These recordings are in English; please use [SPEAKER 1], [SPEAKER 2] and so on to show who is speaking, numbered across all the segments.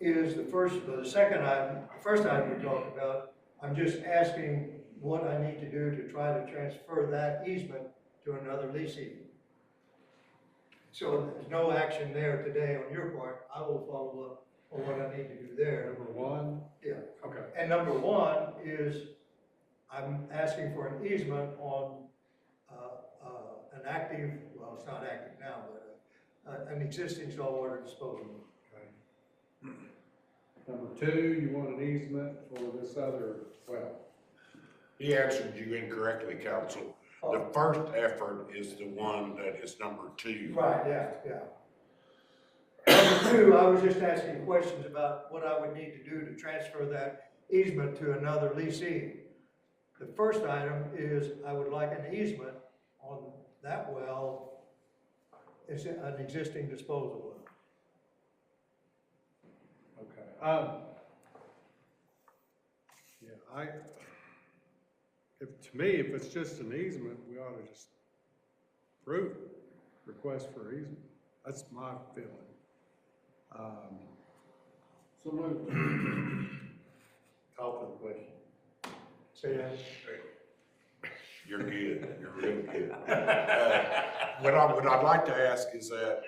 [SPEAKER 1] is the first, the second item, the first item you talked about. I'm just asking what I need to do to try to transfer that easement to another leasing. So there's no action there today on your part. I will follow up on what I need to do there.
[SPEAKER 2] Number one?
[SPEAKER 1] Yeah.
[SPEAKER 2] Okay,
[SPEAKER 1] And number one is, I'm asking for an easement on, uh, uh, an active, well, it's not active now, but, uh, an existing saltwater disposal.
[SPEAKER 2] okay. Number two, you want an easement for this other well.
[SPEAKER 3] He answered you incorrectly, counsel. The first effort is the one that is number two.
[SPEAKER 1] Right, yeah, yeah. Number two, I was just asking questions about what I would need to do to transfer that easement to another leasing. The first item is I would like an easement on that well, it's an existing disposal well.
[SPEAKER 2] Okay, um, yeah, I, if, to me, if it's just an easement, we ought to just approve it, request for easement. That's my feeling. Um,
[SPEAKER 4] So moved.
[SPEAKER 2] call for the question.
[SPEAKER 1] Say that.
[SPEAKER 3] You're good, you're real good. Uh, What I, what I'd like to ask is that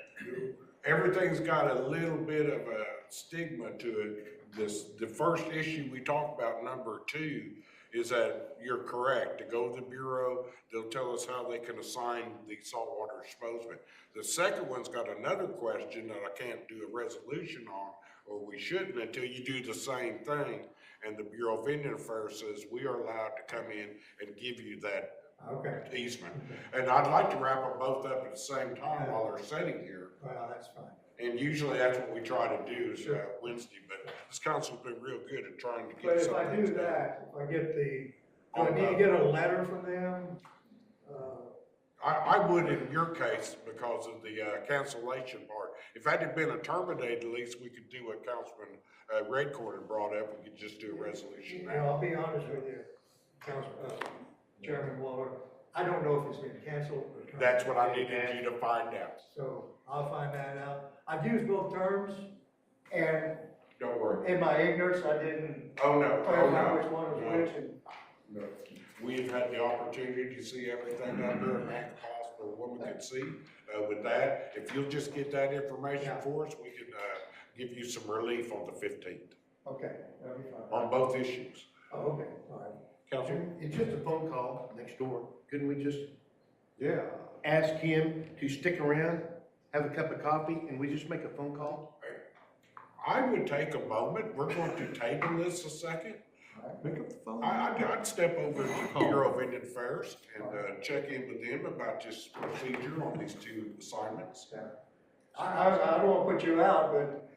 [SPEAKER 3] everything's got a little bit of a stigma to it. This, the first issue we talked about, number two, is that you're correct, to go to the Bureau, they'll tell us how they can assign the saltwater disposal. The second one's got another question that I can't do a resolution on, or we shouldn't until you do the same thing. And the Bureau of Indian Affairs says we are allowed to come in and give you that
[SPEAKER 1] Okay,
[SPEAKER 3] easement. And I'd like to wrap them both up at the same time while they're sitting here.
[SPEAKER 1] well, that's fine.
[SPEAKER 3] And usually that's what we try to do is uh, Wednesday, but this council's been real good at trying to
[SPEAKER 1] But
[SPEAKER 3] get
[SPEAKER 1] if I
[SPEAKER 3] something.
[SPEAKER 1] do
[SPEAKER 3] done.
[SPEAKER 1] that, if I get the, do I need to get a letter from them? Uh,
[SPEAKER 3] I, I would in your case because of the uh, cancellation part. If that had been a terminated lease, we could do what Councilman uh, Redcorn had brought up. We could just do a resolution
[SPEAKER 1] And
[SPEAKER 3] now.
[SPEAKER 1] I'll be honest with you, Council, uh, Chairman Waller, I don't know if it's been canceled or. terminated.
[SPEAKER 3] That's what I needed you to find out.
[SPEAKER 1] So I'll find that out. I've used both terms, and
[SPEAKER 3] Don't worry.
[SPEAKER 1] in my ignorance, I didn't
[SPEAKER 3] Oh, no, oh,
[SPEAKER 1] clarify which
[SPEAKER 3] no.
[SPEAKER 1] one was
[SPEAKER 3] No.
[SPEAKER 1] which, and
[SPEAKER 3] No. We've had the opportunity to see everything out there and act possible woman could see. Uh, with that, if you'll just get that information
[SPEAKER 1] Yeah.
[SPEAKER 3] for us, we can, uh, give you some relief on the fifteenth,
[SPEAKER 1] okay, that'll be fine.
[SPEAKER 3] on both issues.
[SPEAKER 1] Oh, okay, all right.
[SPEAKER 3] Council,
[SPEAKER 4] It's just a phone call next door. Couldn't we just
[SPEAKER 2] Yeah,
[SPEAKER 4] ask him to stick around, have a cup of coffee, and we just make a phone call?
[SPEAKER 3] I would take a moment, we're going to table this a second.
[SPEAKER 2] pick up the phone.
[SPEAKER 3] I, I'd, I'd step over to the Bureau of Indian Affairs and, uh, check in with them about this procedure on these two assignments.
[SPEAKER 1] I, I, I don't wanna put you out, but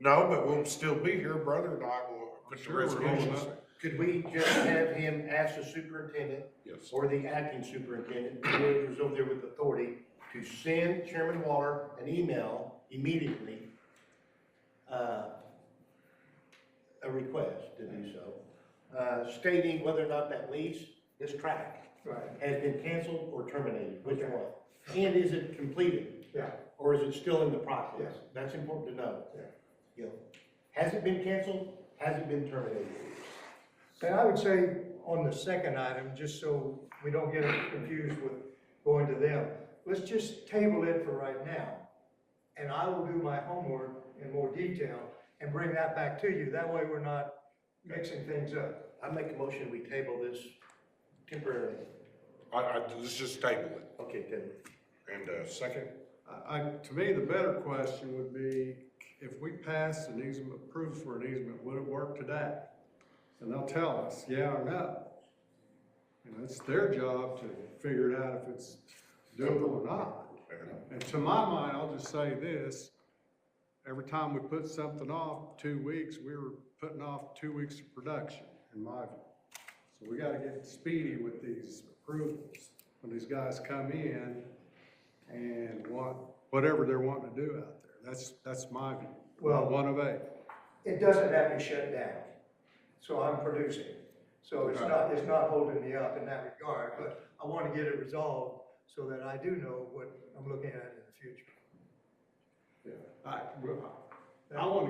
[SPEAKER 3] No, but we'll still be here, brother, and I will put the
[SPEAKER 2] Sure, we're holding
[SPEAKER 3] resolution.
[SPEAKER 2] up.
[SPEAKER 4] Could we just have him ask the superintendent
[SPEAKER 3] Yes.
[SPEAKER 4] or the acting superintendent, whoever's over there with authority, to send Chairman Waller an email immediately, uh, a request to do so, uh, stating whether or not that lease, this tract,
[SPEAKER 1] right,
[SPEAKER 4] has been canceled or terminated, which one? And is it completed,
[SPEAKER 1] yeah,
[SPEAKER 4] or is it still in the process?
[SPEAKER 1] Yes.
[SPEAKER 4] That's important to know.
[SPEAKER 1] yeah.
[SPEAKER 4] You know, Has it been canceled? Has it been terminated?
[SPEAKER 1] And I would say on the second item, just so we don't get confused with going to them, let's just table it for right now. And I will do my homework in more detail and bring that back to you. That way we're not mixing things up.
[SPEAKER 4] I make a motion, we table this temporarily.
[SPEAKER 3] I, I, let's just table it.
[SPEAKER 4] Okay, table.
[SPEAKER 3] And, uh, second,
[SPEAKER 2] I, I- to me, the better question would be, if we passed an easement, approved for an easement, would it work today? And they'll tell us, yeah or no. And it's their job to figure it out if it's doable or not.
[SPEAKER 3] and
[SPEAKER 2] And to my mind, I'll just say this, every time we put something off two weeks, we were putting off two weeks of production, in my view. So we gotta get speedy with these approvals, when these guys come in and want, whatever they're wanting to do out there, that's, that's my view.
[SPEAKER 1] Well-
[SPEAKER 2] One of eight,
[SPEAKER 1] It doesn't have to shut down. So I'm producing. So it's not, it's not holding me up in that regard, but I want to get it resolved so that I do know what I'm looking at in the future.
[SPEAKER 2] I, I wanna